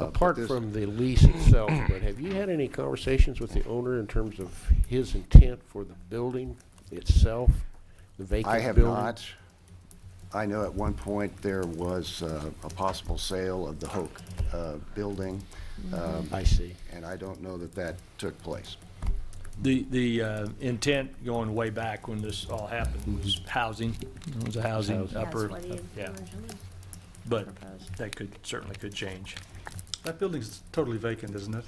Uh, Apart this- from the lease itself, but have you had any conversations with the owner in terms of his intent for the building itself, the vacant I building? have not. I know at one point there was uh, a possible sale of the Hoke uh, building, um, I see. and I don't know that that took place. The, the uh, intent going way back when this all happened was housing, it was a housing Mm-hmm. Housing. upper, That's what he yeah, originally but proposed. that could, certainly could change. That building's totally vacant, isn't it?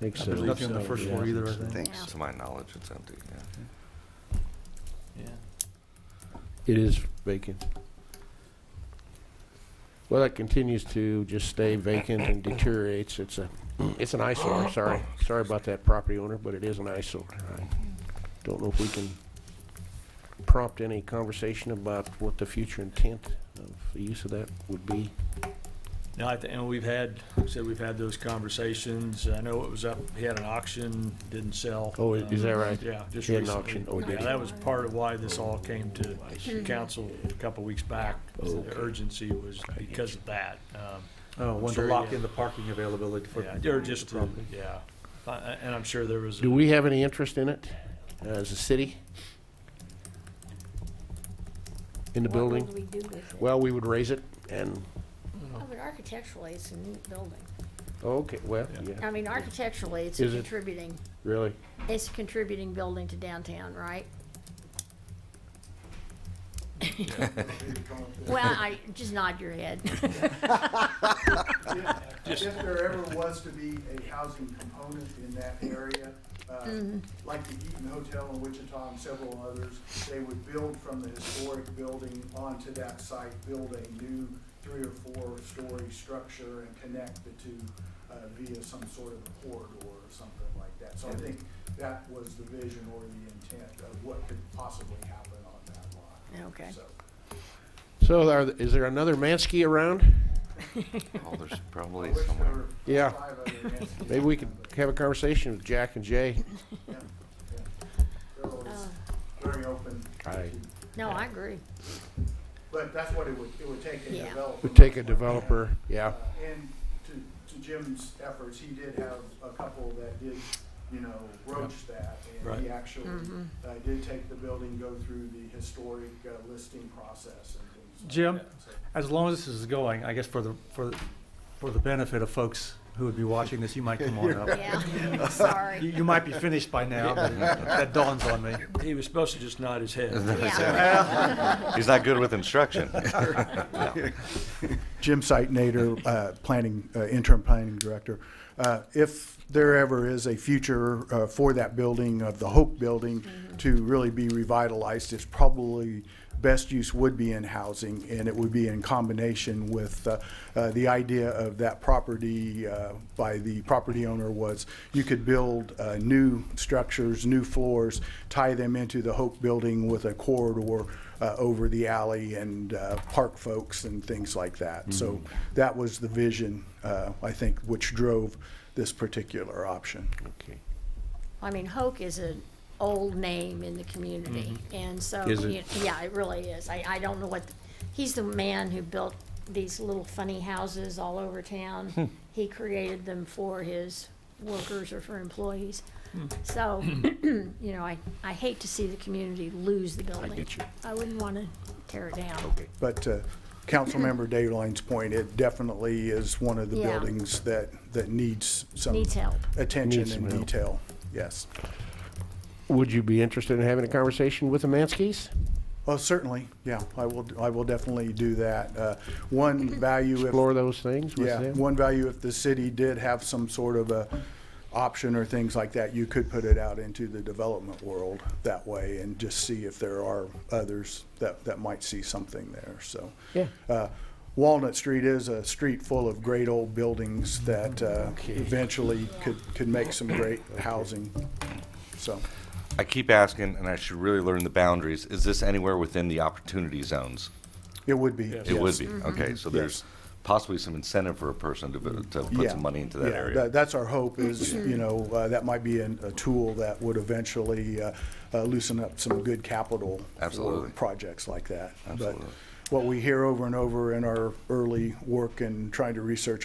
Think so. There's nothing on the first floor either, I think. Thanks. To my knowledge, it's empty, yeah. Yeah. It is vacant. Well, that continues to just stay vacant and deteriorates. It's a, it's an eyesore, sorry. Sorry about that property owner, but it is an eyesore. I Don't know if we can prompt any conversation about what the future intent of the use of that would be. No, I, thi- and we've had, like I said we've had those conversations, I know it was up, he had an auction, didn't sell. Oh, is- is that Um, right? Yeah, just He had an recently. auction. Oh, did Yeah, he? Oh, that was part of why this all came to I Mm-hmm. see. council a couple weeks back. Okay. The urgency was because of that. Um, Oh, one to Sure, lock yeah. in the parking availability for. Yeah, or just to, property. yeah, I- I- and I'm sure there was. a- Do we have any interest in it as a city? In the building? What would we do with it? Well, we would raise it and, I mean, architecturally, it's a neat building. okay, well, Yeah. yeah, I mean, architecturally, it's a Is it- contributing, really. it's a contributing building to downtown, right? Well, I, just nod your head. If there ever was to be a housing component in that area, uh, like the Eaton Hotel in Wichita and several others, they would build from the historic building onto that site, build a new three or four-story structure and connect the two uh, via some sort of a corridor or something like that. So I think that was the vision or the intent of what could possibly happen on that lot. Okay. So, So are, th- is there another Mansky around? Oh, there's I probably wish there somewhere. were Yeah. five other answers. Maybe we could have a conversation with Jack and Jay. They're always very open. Aye. No, I agree. But that's what it would, it would take a Yeah. developer. We take a developer, yeah. Uh, And to, to Jim's efforts, he did have a couple that did, you know, broach that. And he Right. actually uh, did take the building, go through the historic uh, listing process and things like Jim? that. So- As long as this is going, I guess for the, for, the- for the benefit of folks who would be watching this, you might come on up. Yeah, You, sorry. you might be finished by now, but that dawns on me. He was supposed to just nod his head. Yeah. He's not good with instruction. Jim Sightnader, uh, planning, uh, interim planning director. Uh, If there ever is a future uh, for that building, of the Hope Building, to really be revitalized, it's probably, best use would be in housing, and it would be in combination with, uh, uh, the idea of that property uh, by the property owner was, you could build uh, new structures, new floors, tie them into the Hope Building with a corridor uh, over the alley and uh, park folks and things like Mm-hmm. that. So that was the vision, uh, I think, which drove this particular option. Okay. I mean, Hoke is an old name in the community, and so, Mm-hmm. Is it? you- yeah, it really is. I, I don't know what, he's the man who built these little funny houses all over Hmm. town. He created them for his workers or for employees. Hmm. So, you know, I, I hate to see the community lose the building. get you. I wouldn't want to tear it down. But uh, Councilmember Dayline's point, it definitely is one of the Mm-hmm. Yeah. buildings that, that needs some Needs help. attention Needs some and help. detail. Yes. Would you be interested in having a conversation with the Manskys? Well, certainly, yeah, I will, I will definitely do that. Uh, One value if Explore those things with Yeah, them? one value if the city did have some sort of a option or things like that, you could put it out into the development world that way and just see if there are others that, that might see something there, so. Yeah. Uh, Walnut Street is a street full of great old buildings that uh, Okay. eventually could, could make some great housing, so. I keep asking, and I should really learn the boundaries, is this anywhere within the opportunity zones? It would be. It would yes. Mm-hmm. be, okay, so there's possibly some incentive for a person to, to put Yeah. some money into that Yeah, area. That's our hope is, you know, uh, that might be an- a tool that would eventually uh, uh, loosen up some good capital. for Absolutely. Projects like that. But Absolutely. What we hear over and over in our early work and trying to research